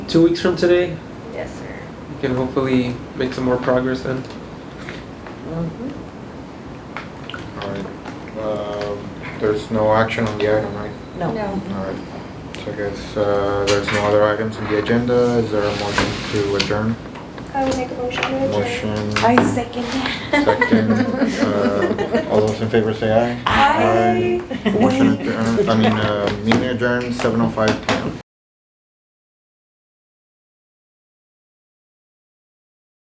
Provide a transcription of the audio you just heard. two weeks from today, Yes, sir. we can hopefully make some more progress then. All right. Um, There's no action on the item, right? No. All right. So I guess uh, there's no other items on the agenda. Is there a motion to adjourn? I would make a motion to adjourn. Motion I second that. second. Uh, All those in favor say aye. Aye. Motion adjourned, I mean, uh, meeting adjourned, 7:05 PM.